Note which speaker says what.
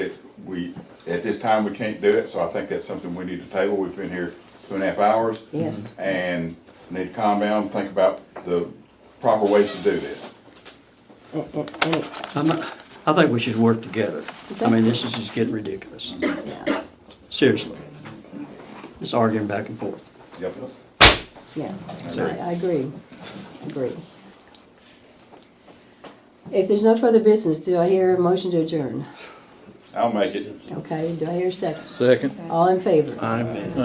Speaker 1: we, at this time, we can't do it, so I think that's something we need to table. We've been here two and a half hours.
Speaker 2: Yes.
Speaker 1: And need to calm down, think about the proper ways to do this.
Speaker 3: I'm, not- I think we should work together. I mean, this is just getting ridiculous.
Speaker 2: Yeah,
Speaker 3: Seriously. Just arguing back and forth.
Speaker 1: Yep.
Speaker 2: yeah, I
Speaker 3: Sorry.
Speaker 2: I agree, agree. If there's no further business, do I hear a motion to adjourn?
Speaker 1: I'll make it.
Speaker 2: Okay, do I hear a second?
Speaker 4: Second.
Speaker 2: All in favor?